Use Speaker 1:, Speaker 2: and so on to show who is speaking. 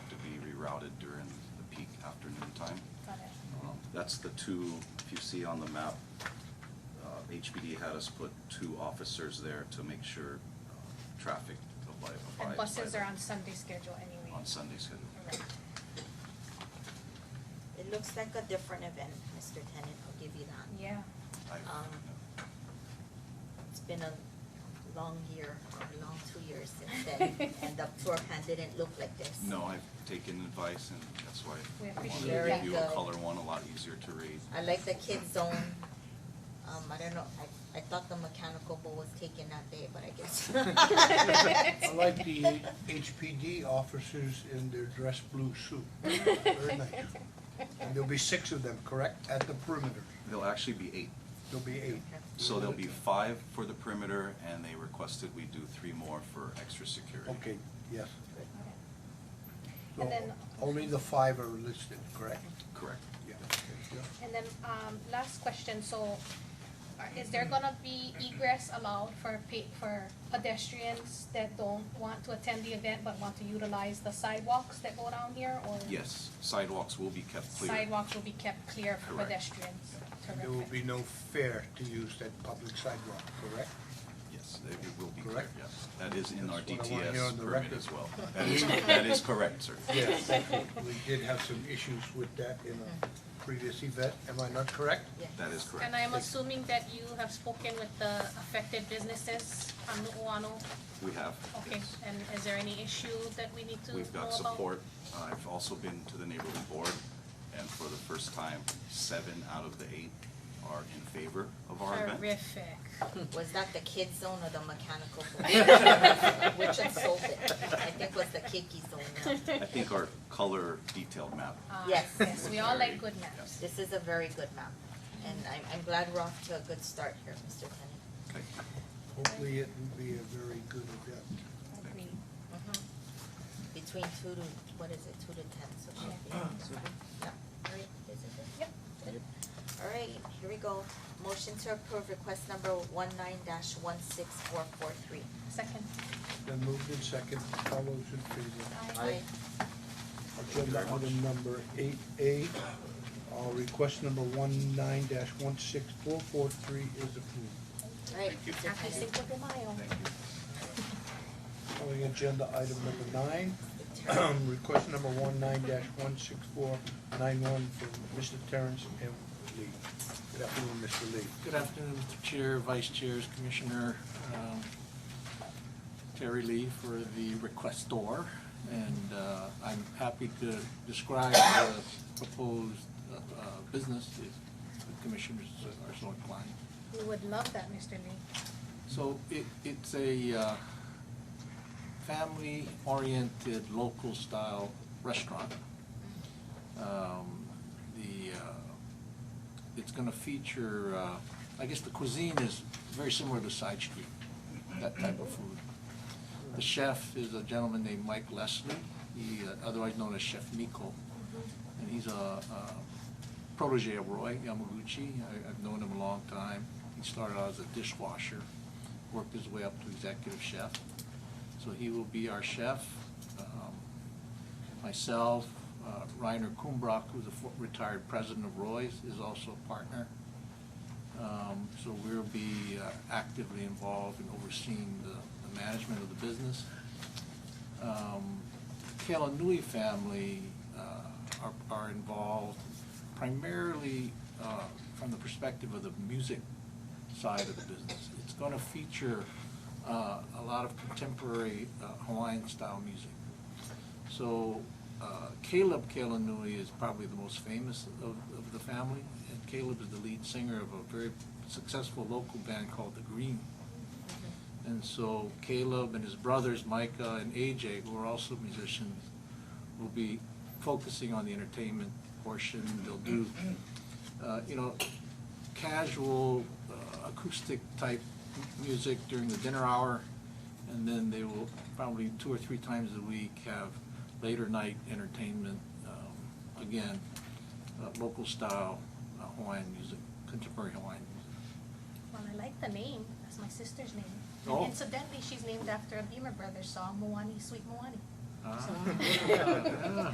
Speaker 1: routed during the peak afternoon time.
Speaker 2: Got it.
Speaker 1: Um, That's the two, if you see on the map, uh, HPD had us put two officers there to make sure uh, traffic abide.
Speaker 2: And
Speaker 1: abides
Speaker 2: buses
Speaker 1: by
Speaker 2: are
Speaker 1: the-
Speaker 2: on Sunday schedule anyway.
Speaker 1: On Sunday schedule.
Speaker 2: Right.
Speaker 3: It looks like a different event, Mr. Tennant, I'll give you that.
Speaker 2: Yeah,
Speaker 1: I've-
Speaker 3: Um, It's been a long year, or a long two years since then, and the floor plan didn't look like this.
Speaker 1: No, I've taken advice and that's why
Speaker 2: We
Speaker 1: I wanted
Speaker 2: appreciate
Speaker 1: to
Speaker 3: that.
Speaker 1: give you a
Speaker 3: Good.
Speaker 1: color one, a lot easier to read.
Speaker 3: I like the kid zone, um, I don't know, I, I thought the mechanical bull was taken that day, but I guess.
Speaker 4: I like the HPD officers in their dress blue suit. Very nice. And there'll be six of them, correct, at the perimeter?
Speaker 1: There'll actually be eight.
Speaker 4: There'll be eight.
Speaker 1: So there'll be five for the perimeter and they requested we do three more for extra security.
Speaker 4: Okay, yes.
Speaker 2: okay.
Speaker 4: So
Speaker 2: And then-
Speaker 4: only the five are listed, correct?
Speaker 1: Correct.
Speaker 4: Yeah.
Speaker 2: And then, um, last question, so are- is there gonna be egress allowed for pe- for pedestrians that don't want to attend the event but want to utilize the sidewalks that go down here or?
Speaker 1: Yes, sidewalks will be kept clear.
Speaker 2: Sidewalks will be kept clear for
Speaker 1: Correct.
Speaker 2: pedestrians.
Speaker 4: And
Speaker 2: Terrific.
Speaker 4: There will be no fare to use that public sidewalk, correct?
Speaker 1: Yes, it it will be clear,
Speaker 4: Correct?
Speaker 1: yes. That is in our
Speaker 4: That's what I wanna hear on
Speaker 1: DTS
Speaker 4: the
Speaker 1: permit
Speaker 4: record.
Speaker 1: as well. That is, that is correct, sir.
Speaker 4: Yes. We did have some issues with that in a previous event, am I not correct?
Speaker 3: Yeah.
Speaker 1: That is correct.
Speaker 2: And I'm assuming that you have spoken with the affected businesses on Nuuanu?
Speaker 1: We have.
Speaker 2: Okay,
Speaker 1: yes.
Speaker 2: and is there any issue that we need to know
Speaker 1: We've
Speaker 2: about?
Speaker 1: got support. I've also been to the neighborhood board, and for the first time, seven out of the eight are in favor of our event.
Speaker 2: Terrific.
Speaker 3: Was that the kid zone or the mechanical bull? Which insulted, I think was the kicky zone now.
Speaker 1: I think our color detailed map.
Speaker 2: Ah,
Speaker 3: Yes.
Speaker 2: Yes, we all like good
Speaker 1: Yes.
Speaker 2: maps.
Speaker 3: This is a very good map, and I'm, I'm glad we're off to a good start here, Mr. Tennant.
Speaker 1: Okay.
Speaker 4: Hopefully it will be a very good event.
Speaker 2: Agree.
Speaker 3: Mm-hmm. Between two to, what is it, two to ten, so it should be. Yeah. Ah, All right, is it good?
Speaker 2: Yep.
Speaker 3: Good. All right, here we go. Motion to approve request number one nine dash one six four four three.
Speaker 2: Second.
Speaker 4: Then moved in second, all those in favor?
Speaker 3: Aye.
Speaker 4: Agenda item number eight A, uh, request number one nine dash one six four four three is approved.
Speaker 3: All right,
Speaker 1: Thank you.
Speaker 3: Mr.
Speaker 2: Happy
Speaker 3: Tennant.
Speaker 2: Cinco de Mayo.
Speaker 1: Thank you.
Speaker 4: Calling agenda item number nine, request number one nine dash one six four nine one from Mr. Terrence M. Lee. Good afternoon, Mr. Lee.
Speaker 5: Good afternoon, Mr. Chair, Vice Chairs, Commissioner um, Terry Lee for the requestor. And uh, I'm happy to describe the proposed uh, uh, business if the commissioners are so inclined.
Speaker 2: We would love that, Mr. Lee.
Speaker 5: So it, it's a uh, family-oriented, local-style restaurant. Um, The, uh, it's gonna feature, uh, I guess the cuisine is very similar to side street, that type of food. The chef is a gentleman named Mike Leslie, he, uh, otherwise known as Chef Nico. And he's a a protege of Roy Yamaguchi. I- I've known him a long time. He started out as a dishwasher, worked his way up to executive chef. So he will be our chef. Um, Myself, uh, Reiner Kumbrock, who's a fo- retired president of Roy's, is also a partner. Um, So we'll be uh, actively involved in overseeing the the management of the business um, Kalanui family uh, are, are involved primarily uh, from the perspective of the music side of the business. It's going to feature uh, a lot of contemporary uh, Hawaiian-style music. So uh, Caleb Kalanui is probably the most famous of, of the family, and Caleb is the lead singer of a very successful local band called The Green. And so Caleb and his brothers, Micah and AJ, who are also musicians, will be focusing on the entertainment portion. They'll do, uh, you know, casual uh, acoustic type m- music during the dinner hour. And then they will probably two or three times a week have later night entertainment. um, Again, uh, local style uh, Hawaiian music, contemporary Hawaiian music.
Speaker 2: Well, I like the name. That's my sister's name. And
Speaker 5: Oh.
Speaker 2: Incidentally, she's named after a Beamer Brothers song, Moani Sweet Moani.
Speaker 5: Ah.
Speaker 2: So-
Speaker 5: Yeah, yeah.